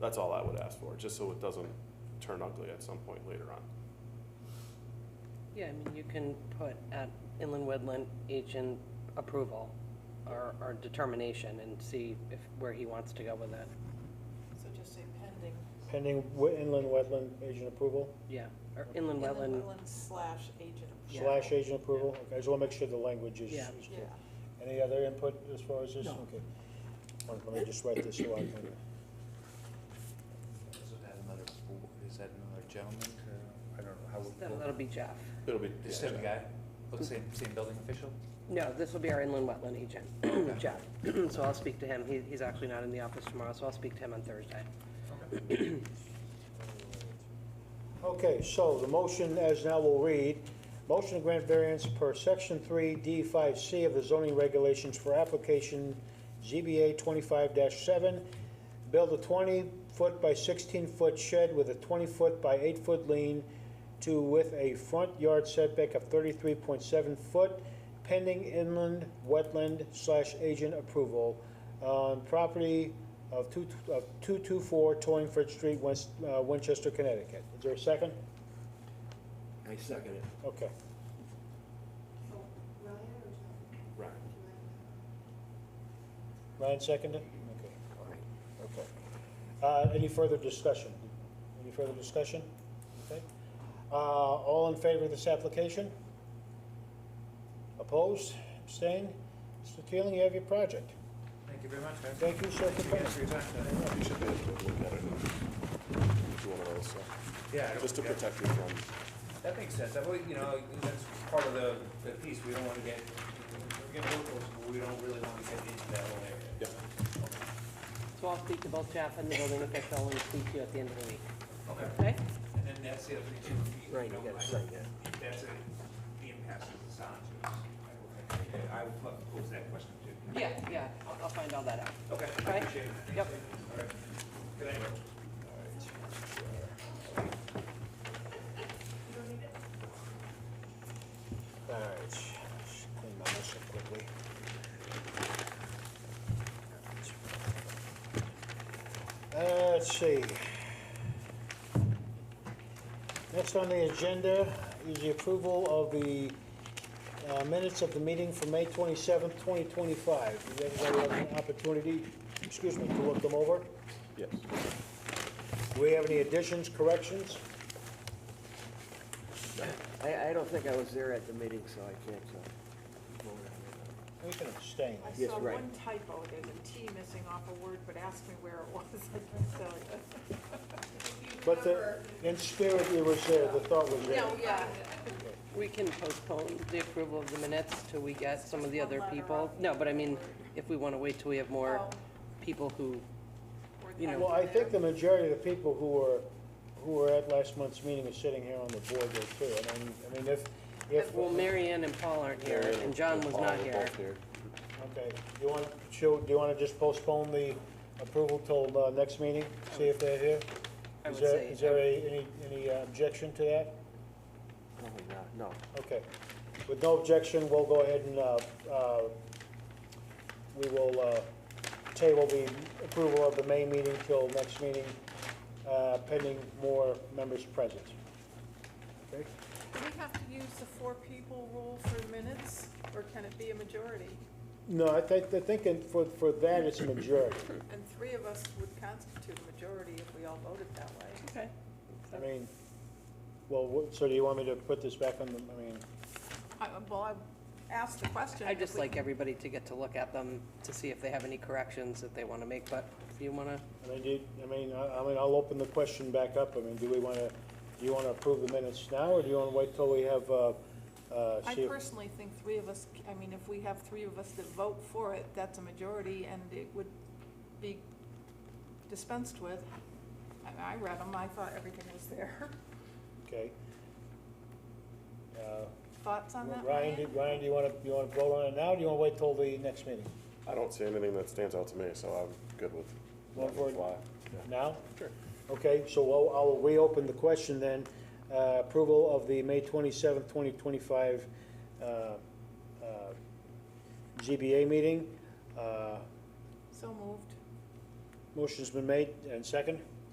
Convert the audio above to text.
That's all I would ask for, just so it doesn't turn ugly at some point later on. Yeah, I mean, you can put at inland wetland agent approval or, or determination and see if, where he wants to go with it. So just say pending. Pending wet- inland wetland agent approval Yeah, or inland Inland wetland, wetland slash agent. approval. Yeah. slash agent approval? Okay, I just want to make sure the language is. Yeah. is Yeah, clear. Any other input as far as this? No. Okay. Let let me just write this so I can, Is that another, bo- is that another gentleman, or, Uh, I don't know, how that'll that'll would, be Jeff. It'll be. this same guy, looks same, same building official? No, this will be our inland wetland agent, Jeff. So I'll speak to him. He, he's actually not in the office tomorrow, so I'll speak to him on Thursday. Okay, so the motion as now will read, motion to grant variance per section three D five C of the zoning regulations for application ZBA twenty-five seven. Build a twenty-foot by sixteen-foot shed with a twenty-foot by eight-foot lean to with a front yard setback of thirty-three point seven foot pending inland wetland slash agent approval on property of two, of two-two-four Torringford Street, West, uh, Winchester, Connecticut. Is there a second? I second it. Okay. Right. Ryan seconded? Okay. Okay. Uh, any further discussion? Any further discussion? Okay. Uh, all in favor of this application? Opposed? Abstained? Mr. Keeling, you have your project. Thank you very much, guys. Thank you, sir, for Thank you guys for your time. You should be able to look at it. If you want to also, Yeah, I don't- just to yeah, protect you from, That makes sense, that, way, you know, that's part of the, the piece, we don't wanna get, we're gonna look those, but we don't really wanna get into that whole area. yeah. So I'll speak to both Jeff and the building official and speak to you at the end of the week, Okay, okay? and then that's the other thing too, if you, you Right, you know, gotta I- sign that. if that's a, the impasse of the sound to us, I would- I would love to pose that question too. Yeah, yeah, I'll, I'll find all that out. Okay, I Okay. appreciate it. Yep. All right. Good night. All right, let's clean my mess up quickly. Uh, Let's see. Next on the agenda is the approval of the uh, minutes of the meeting for May 27th, 2025. Did everybody have an opportunity, excuse me, to look them over? Yes. Do we have any additions, corrections? I, I don't think I was there at the meeting, so I can't, uh, vote We can abstain. I Yes, saw right. one typo, there's a T missing off a word, but ask me where it was, I can tell you. But the, in spirit, it was there, the thought was there. No, yeah. We can postpone the approval of the minutes till we get some of the other people. No, but I mean, if we want to wait till we have more people who, Or You know. Well, I typo think there. the majority of the people who were, who were at last month's meeting are sitting here on the board there too. And I mean, I mean, if, if, well, Mary Ann and Paul aren't here, and John was not here. okay, you want, should, do you want to just postpone the approval till, uh, next meeting? See if they're here? I Is would there- say- Is there a- any, any uh, objection to that? Probably not, no. Okay. With no objection, we'll go ahead and, uh, uh, we will, uh, table the approval of the May meeting till next meeting, uh, pending more members present. Okay? Do we have to use the four people rule for minutes, or can it be a majority? No, I think, I think in- for, for that, it's a majority. And three of us would constitute a majority if we all voted that way. Okay. I mean, well, what- so do you want me to put this back on the, I mean, I, well, I asked the question. I'd if just we- like everybody to get to look at them to see if they have any corrections that they want to make, but if you want to, I mean, do, you- I mean, I, I mean, I'll open the question back up. I mean, do we wanna, do you wanna approve the minutes now, or do you wanna wait till we have, uh, uh, I see if- personally think three of us, I mean, if we have three of us that vote for it, that's a majority, and it would be dispensed with. I, I read them, I thought everything was there. Okay. Uh, Thoughts on that, Ryan? Ryan, do- Ryan, do you want to, you want to vote on it now, or do you want to wait till the next meeting? I don't see anything that stands out to me, so I'm good with One letting it word. fly. Yeah. Now? Sure. Okay, so I'll, I'll reopen the question then. Uh, Approval of the May twenty-seventh, twenty twenty-five uh, ZBA meeting. Uh, So moved. Motion's been made and second?